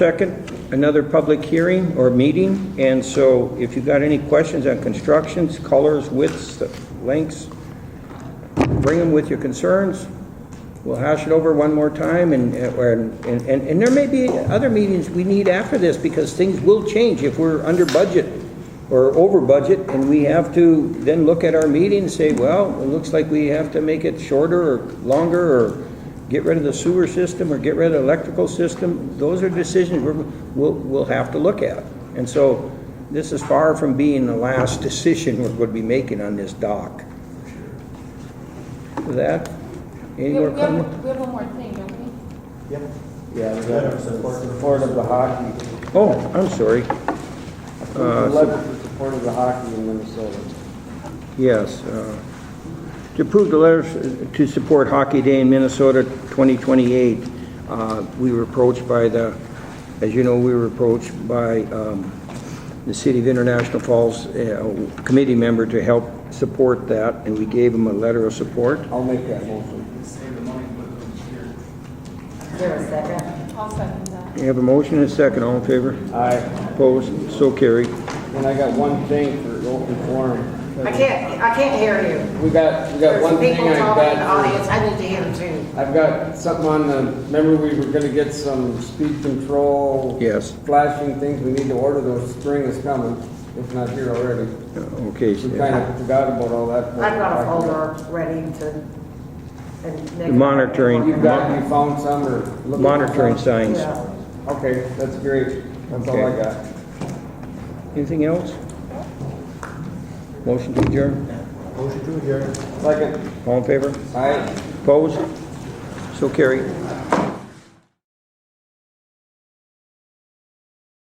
Second, another public hearing or meeting, and so if you got any questions on constructions, colors, widths, lengths, bring them with your concerns. We'll hash it over one more time, and, uh, and, and and there may be other meetings we need after this, because things will change if we're under budget or over budget, and we have to then look at our meeting and say, well, it looks like we have to make it shorter or longer, or get rid of the sewer system, or get rid of the electrical system. Those are decisions we're, we'll, we'll have to look at. And so, this is far from being the last decision we're gonna be making on this dock. With that, any We more have, we comments? have, we have one more thing, don't we? Yep. Yeah, we got support, support of the hockey. Oh, I'm sorry. Uh, Letter for support of the hockey in Minnesota. Yes. uh, To approve the letters to support Hockey Day in Minnesota 2028, uh, we were approached by the, as you know, we were approached by um, the City of International Falls uh, committee member to help support that, and we gave him a letter of support. I'll make that motion. Is there a second? I'll second that. You have a motion and a second, all in favor? Aye. Opposed? So carried. And I got one thing for open forum. I can't, I can't hear you. We got, we got There's one some thing people I've talking in the got. audience, I need to hear them too. I've got something on the, remember we were gonna get some speed control? Yes. Flashing things, we need to order those, spring is coming, if not here already. Uh, Okay. We kind of forgot about all that. I've got a folder ready to. and make- Monitoring. You've got, you found some or? looking for Monitoring some? signs. Yeah. Okay, that's great, that's all I Okay. got. Anything else? Motion to adjourn? Second, All in favor? aye. Opposed? So carried.